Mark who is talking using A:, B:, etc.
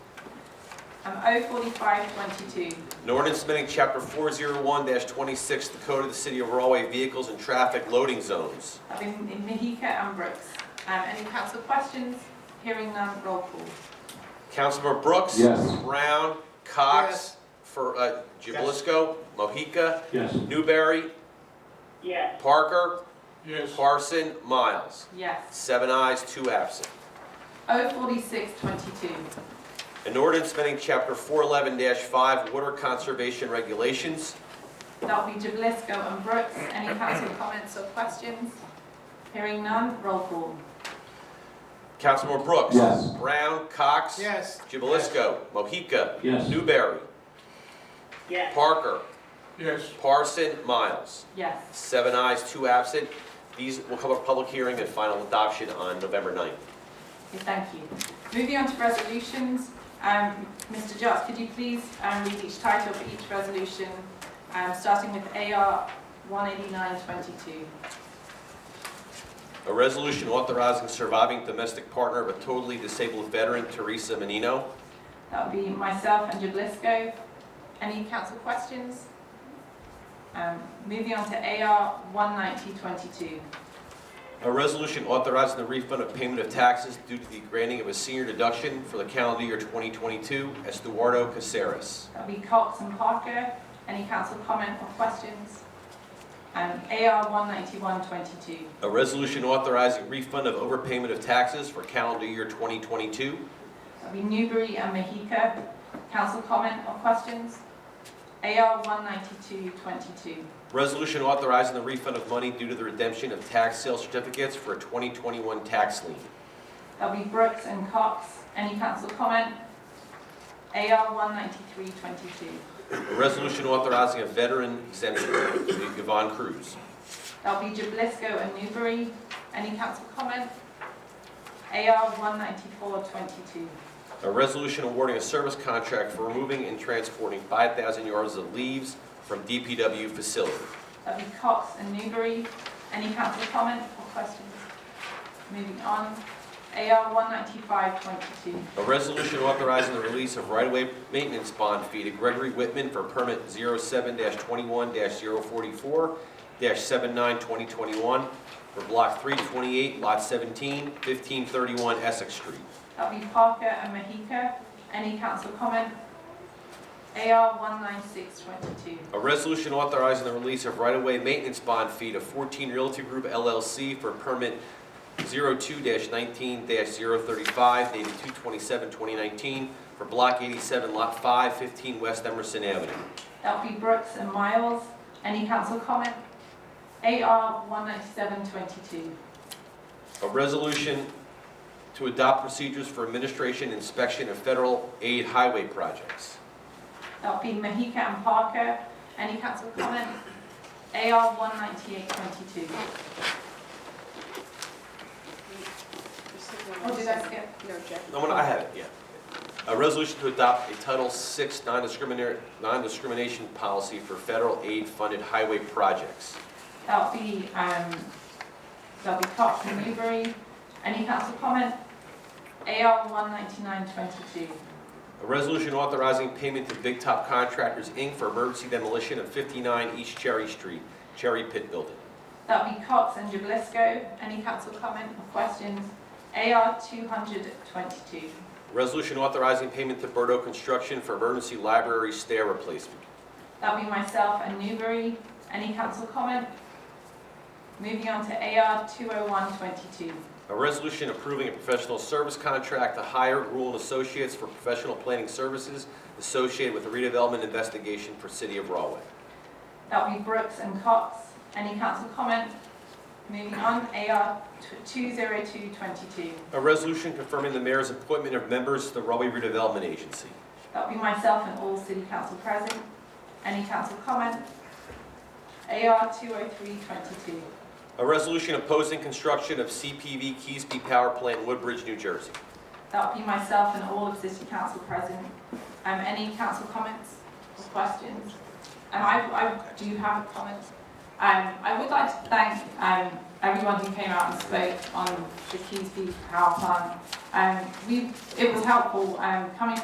A: Um, O forty-five twenty-two.
B: An ordinance amending chapter four zero one twenty-six, the code of the city of Railway vehicles and traffic loading zones.
A: I've been in Mahika and Brooks. Um, any council questions? Hearing none, roll call.
B: Councilmember Brooks.
C: Yes.
B: Brown, Cox, for, uh, Jubalisco, Mohica,
C: Yes.
B: Newberry,
D: yes,
B: Parker,
E: yes,
B: Parson, Miles.
A: Yes.
B: Seven ayes, two absent.
A: O forty-six twenty-two.
B: An ordinance amending chapter four eleven five, water conservation regulations.
A: That'll be Jablisco and Brooks. Any council comments or questions? Hearing none, roll call.
B: Councilmember Brooks.
C: Yes.
B: Brown, Cox.
E: yes.
B: Jubalisco, Mohica.
C: Yes.
B: Newberry,
D: yes,
B: Parker,
E: Yes,
B: Parson, Miles.
A: Yes.
B: Seven ayes, two absent. These will come up public hearing and final adoption on November 9th.
A: Thank you. Moving on to resolutions, um, Mr. Jots, could you please um, read each title for each resolution, um, starting with AR 18922?
B: A resolution authorizing surviving domestic partner of a totally disabled veteran, Teresa Menino.
A: That would be myself and Jablisco. Any council questions? Um, Moving on to AR 19022.
B: A resolution authorizing the refund of payment of taxes due to the granting of a senior deduction for the calendar year 2022, Estuardo Caceres.
A: That would be Cox and Parker. Any council comment or questions? Um, AR 19122.
B: A resolution authorizing refund of overpayment of taxes for calendar year 2022.
A: That'll be Newbury and Mahika. Council comment or questions? AR 19222.
B: Resolution authorizing the refund of money due to the redemption of tax sale certificates for a 2021 tax lien.
A: That'll be Brooks and Cox. Any council comment? AR 19322.
B: A resolution authorizing a veteran exemption for Yvonne Cruz.
A: That'll be Jablisco and Newbury. Any council comment? AR 19422.
B: A resolution awarding a service contract for removing and transporting 5,000 yards of leaves from DPW facility.
A: That'll be Cox and Newbury. Any council comment or questions? Moving on. AR 19522.
B: A resolution authorizing the release of right-of-way maintenance bond fee to Gregory Whitman for permit 07-21-044-79-2021 for block 328, lot 17, 1531 Essex Street.
A: That'll be Parker and Mahika. Any council comment? AR 19622.
B: A resolution authorizing the release of right-of-way maintenance bond fee to 14 Realty Group LLC for permit 02-19-035 dated 2/27/2019 for block 87, lot 5, 15 West Emerson Avenue.
A: That'll be Brooks and Miles. Any council comment? AR 19722.
B: A resolution to adopt procedures for administration inspection of federal aid highway projects.
A: That'll be Mahika and Parker. Any council comment? AR 19822. Or Oh, did I skip?
F: No, Jack.
B: No, I have it, yeah. A resolution to adopt a Title VI non-discriminar- non-discrimination policy for federal aid-funded highway projects.
A: That'll be, um, that'll be Cox and Newbury. Any council comment? AR 19922.
B: A resolution authorizing payment to Big Top Contractors, Inc. for emergency demolition of 59 East Cherry Street, Cherry Pit Building.
A: That'll be Cox and Jablisco. Any council comment or questions? AR 222.
B: Resolution authorizing payment to Berto Construction for emergency library stair replacement.
A: That'll be myself and Newbury. Any council comment? Moving on to AR 20122.
B: A resolution approving a professional service contract to hire Rule and Associates for professional planning services associated with the redevelopment investigation for City of Raway.
A: That'll be Brooks and Cox. Any council comment? Moving on, AR 20222.
B: A resolution confirming the mayor's appointment of members to the Raway Redevelopment Agency.
A: That'll be myself and all city council present. Any council comment? AR 20322.
B: A resolution opposing construction of CPV Keysby Power Plant, Woodbridge, New Jersey.
A: That would be myself and all of City Council present. Um, any council comments or questions? Um, I, I do have a comment. Um, I would like to thank, um, everyone who came out and spoke on the Keysby Power Plant. Um, we, it was helpful, um, coming